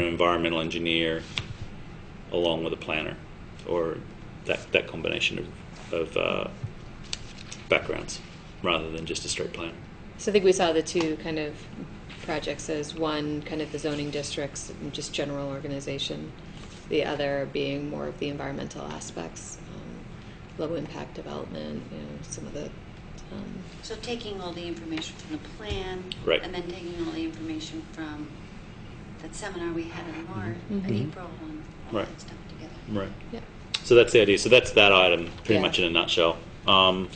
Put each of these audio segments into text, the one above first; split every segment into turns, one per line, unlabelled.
an environmental engineer along with a planner or that, that combination of, of uh, backgrounds rather than just a straight planner.
So I think we saw the two kind of projects as one kind of the zoning districts, and just general organization, the other being more of the environmental aspects, um, low impact development, you know, some of the. Um,
So taking all the information from the plan.
Right.
And then taking all the information from that seminar we had in March,
Mhm.
in
Mhm.
April, and all
Mm-hmm. Right.
that stuff together.
Right.
yeah.
So that's the idea. So that's that item pretty
Yeah.
much in a nutshell. Um,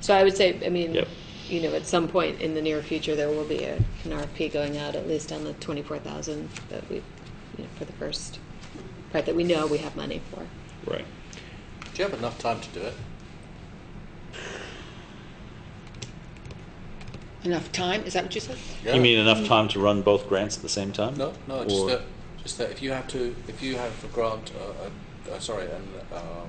So I would say, I mean,
Yep.
you know, at some point in the near future, there will be a, an RFP going out, at least on the twenty-four thousand that we, you know, for the first part that we know we have money for.
right.
Do you have enough time to do it?
Enough time, is that what you said?
Yeah.
You mean enough time to run both grants at the same time?
No, no. Just uh,
Or-
that, just that. If you have to, if you have a grant, uh, uh, sorry, and um,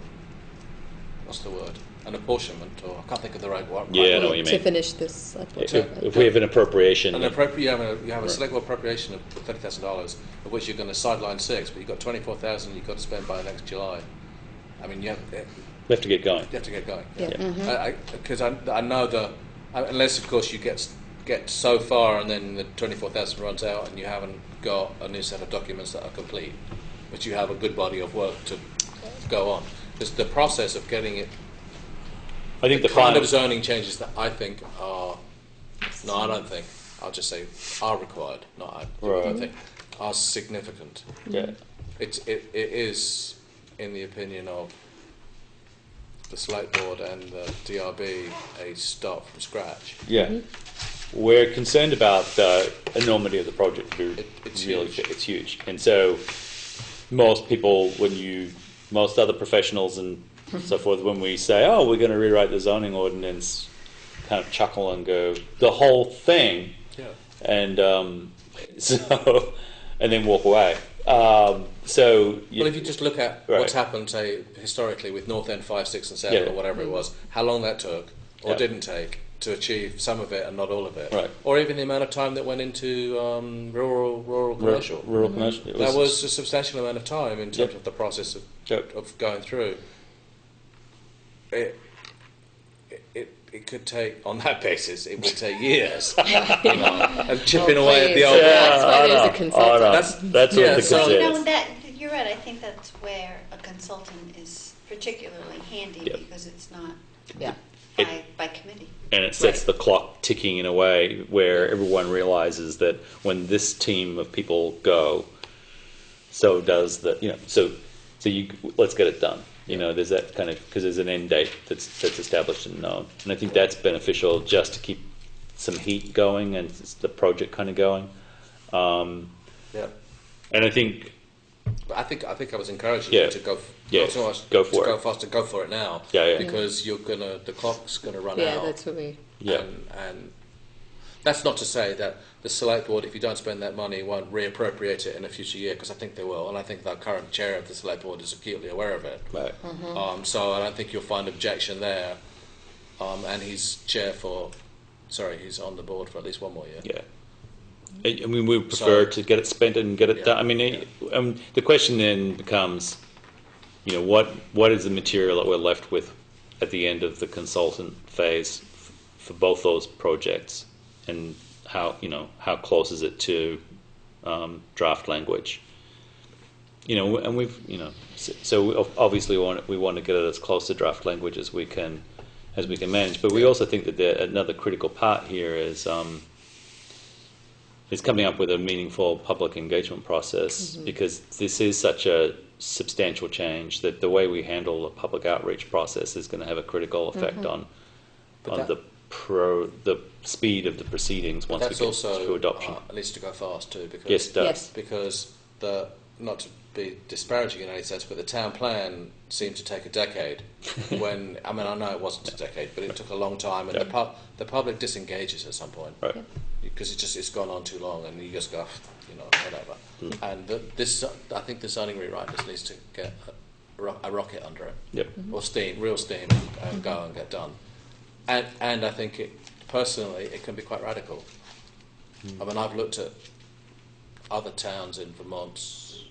what's the word? An apportionment, or I can't think of the right one.
Yeah, I
right
know
word.
what you
To
mean.
finish this. select board
If,
document.
if we have an appropriation,
An appropri- you have a, you have a
Right.
select board appropriation of thirty thousand dollars, of which you're going to sideline six, but you've got twenty four thousand you've got to spend by next July. I mean, you have, you
we have to get going.
have to get going.
Yeah.
Yeah.
Because I, I, know the I- unless of course you get s- get so far and then the twenty four thousand runs out and you haven't got a new set of documents that are complete, but you have a good body of work to go on. Because the process of getting it,
I think the,
kind
final,
of zoning changes that I think are no, I don't think. I'll just say are required, not I I
Right.
don't think are significant.
yeah,
It's it, it is in the opinion of the select board and the DRB a start from scratch.
yeah.
Mm-hmm.
We're concerned about the enormity of the project. To be
It- it's
really,
huge.
it's huge, and so most people, when you, most other professionals and
Mm-hmm.
so forth, when we say, "Oh, we're going to rewrite the zoning ordinance," kind of chuckle and go, "The whole thing."
Yeah.
and um, so and then walk away. Um, so you-
Well, if you just look at what's
Right.
happened, say historically with North End five, six, and seven,
Yeah.
or whatever it was, how long that took or
Yeah.
didn't take to achieve some of it and not all of it,
Right.
or even the amount of time that went into um, rural, rural
rural,
commercial.
rural commercial, it
That was a substantial amount of time in terms
Yep.
of the process of,
Yep.
of going through. It, it, it could take, on that basis, it would take years of chipping away at the
Oh, please.
old.
Yeah. That's why
I
there's a
know, I know.
consultant.
That's-
That's what
yeah,
the
so-
So, you
concern
know,
is.
that, you're right, I think that's where a consultant is particularly handy
Yep.
because it's not
Yeah.
by, by committee.
and it sets
Right.
the clock ticking in a way where everyone realizes that when this team of people go, so does the you know so so you let's get it done. You know, there's that kind of because there's an end date that's that's established and known, and I think that's beneficial just to keep some heat going and s- the project kind of going. Um,
Yeah.
and I think
But I think I think I was encouraging
Yeah.
you to go. F-
Yeah,
not so much
go for
to Go
it.
faster. Go for it now.
Yeah, yeah.
Because you're gonna. The clock's gonna run out.
Yeah, that's what we,
yeah,
And, and that's not to say that the select board, if you don't spend that money, won't reappropriate it in a future year, because I think they will, and I think the current chair of the select board is acutely aware of it.
right.
Um, so I don't think you'll find objection there. Um, and he's chair for, sorry, he's on the board for at least one more year.
Yeah. I I mean, we prefer
So-
to get it spent and get it
Yeah,
done. I mean, it- um, the question then becomes, you know, what what is the material that we're left with at the end of the consultant phase f- for both those projects, and how you know how close is it to um, draft language? You know, and we've you know, so, so we ob- obviously we want we want to get it as close to draft language as we can, as we can manage. But we also think that there, another critical part here is. Um, is coming up with a meaningful public engagement process because this is such a substantial change that the way we handle the public outreach process is going to have a critical effect on
But
on
that-
the pro the speed of the proceedings once we
That's
get
also
to adoption.
Uh, needs to go fast too, because
yes, it does.
Yes.
because the not to be disparaging in any sense, but the town plan seemed to take a decade. when I mean, I know it wasn't a decade, but it took a long time, and the, pub, the public disengages at some point
Right.
because it just it's gone on too long, and you just go, "Ugh," you know, whatever. And the, this, I think, the zoning rewrite just needs to get a, ro- a rocket under it
Yep.
or steam, real steam, and, and go and get done. And and I think it personally, it can be quite radical. I mean, I've looked at other towns in Vermont